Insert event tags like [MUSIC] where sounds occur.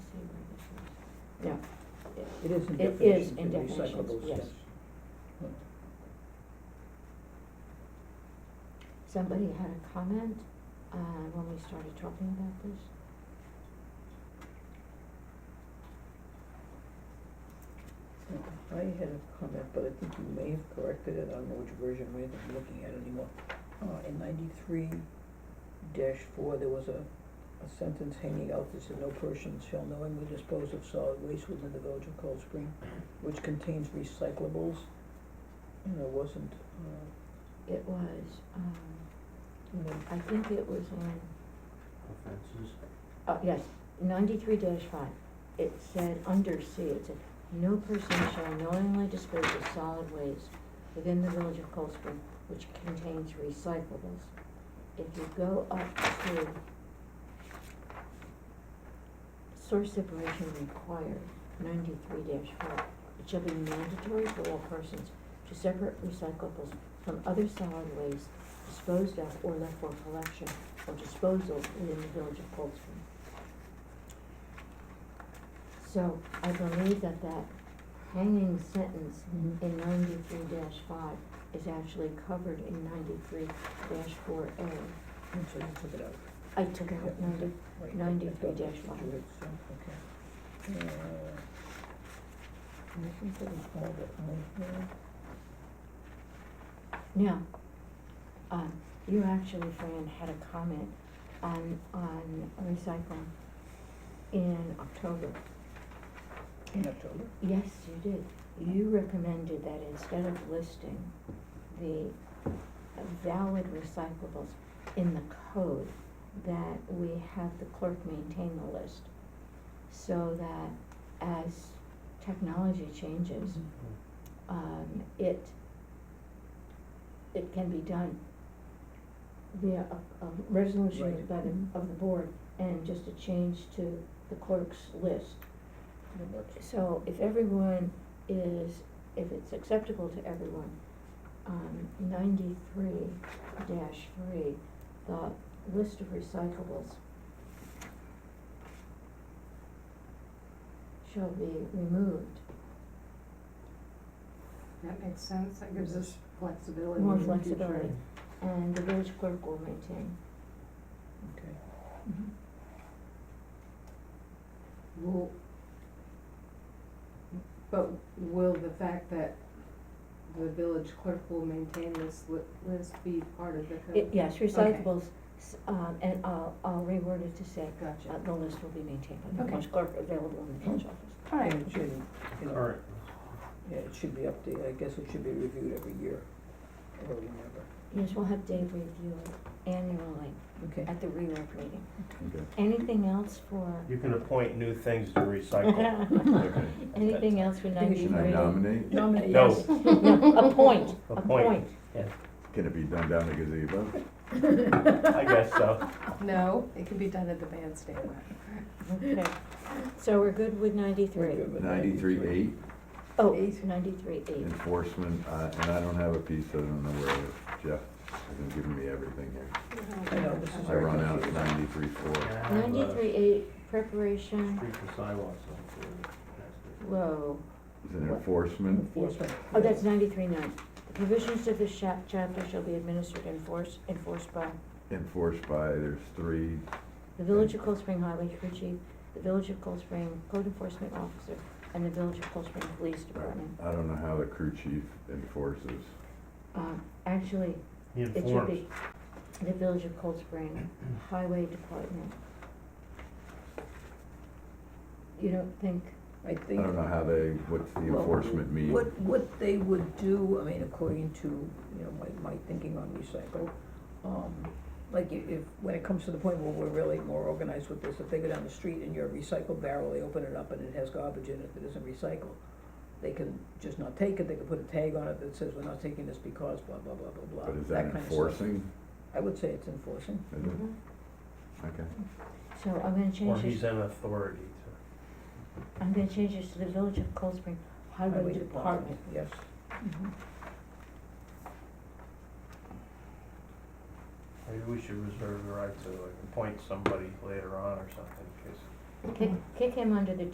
Yeah. It is in It is definitions, in in recyclable definitions, yes. stuff. Somebody had a comment, uh, when we started talking about this? I had a comment, but I think you may have corrected it, I don't know which version, we didn't be looking at it anymore. Uh, in ninety-three dash four, there was a, a sentence hanging out that said, no person shall knowingly dispose of solid waste within the village of Cold Spring, which contains recyclables, and it wasn't, uh, It was, um, in the I think it was on, offenses. oh, yes, ninety-three five. It said, under C, it said, no person shall knowingly dispose of solid waste within the village of Cold Spring which contains recyclables. If you go up to source separation required, ninety-three four, it shall be mandatory for all persons to separate recyclables from other solid waste disposed of or left for collection or disposal within the village of Cold Spring. So I believe that that hanging sentence Mhm. in ninety-three five is actually covered in ninety-three four A. And so you took it out. I took out Yeah. ninety, Right. 93 I thought dash that's one. what you had said, Okay. Uh, and I think it was all of it, all of it. Now, um, you actually, Fran, had a comment on, on recycling in October. in October. Yes, you did. You recommended that instead of listing the valid recyclables in the code, that we have the clerk maintain the list. So that as technology changes, um, it, it can be done via a, a resolution Right. by the, of the board and just a change to the clerk's list. It works. So if everyone is, if it's acceptable to everyone, um, ninety-three dash three, the list of recyclables shall be removed, That makes sense, that gives us flexibility. more in the future. flexibility, and the village clerk will maintain. Okay. Will, but will the fact that the village clerk will maintain this li- list be part of the code? It- Yes, recyclables, s- um, and I'll, I'll reword it to say, uh, Gotcha. the list will be maintained by the Okay. village clerk available in the village office. All right. And it should, you know, All right. yeah, it should be updated, I guess it should be reviewed every year, or whenever. Yes, we'll have Dave review it annually Okay. at the reorg meeting. Okay. Anything else for, You can appoint new things to recycle. Okay. [LAUGHS] anything else for Think it should ninety-three? Can I nominate? Nominate, No. [LAUGHS] yes. No, appoint, Appoint. appoint. Can it be done down the gazebo? I guess so. No, it can be done at the bandstand. Okay, so we're good with ninety-three? We're good with Ninety-three eight, Oh, Eight. ninety-three eight. enforcement, uh, and I don't have a piece, I don't know where, it is. Jeff has been giving me everything here. I know, this is I very run out at confusing. ninety-three four. Ninety-three eight, preparation, uh, Streets and sidewalks. so it's, uh, whoa. Is it enforcement? Enforcement. Oh, that's ninety-three nine. The provisions of this chap- chapter shall be administered and enforced, enforced by Enforced by, there's three, the Village of Cold Spring Highway Chief, the Village of Cold Spring Code Enforcement Officer, and the Village of Cold Spring Police Department. I don't know how the crew chief enforces. Um, actually, He it should informs. be the Village of Cold Spring Highway Department. You don't think, I I think. don't know how they, what's the enforcement mean? What, what they would do, I mean, according to, you know, my, my thinking on recycle, um, like i- if, when it comes to the point where we're really more organized with this, if they go down the street and you're a recycle barrel, they open it up and it has garbage in it that isn't recycled, they can just not take it, they can put a tag on it that says, we're not taking this because blah, blah, blah, blah, blah, But is that that kind of stuff. enforcing? I would say it's enforcing, Is it? Okay. Mm-hmm. so I'm gonna Or change he's this, an authority I'm gonna change this to the Village of Cold Spring Highway highway Department. department, yes. to, maybe we should reserve the right to like, appoint somebody later on or something, because Kick, kick him under the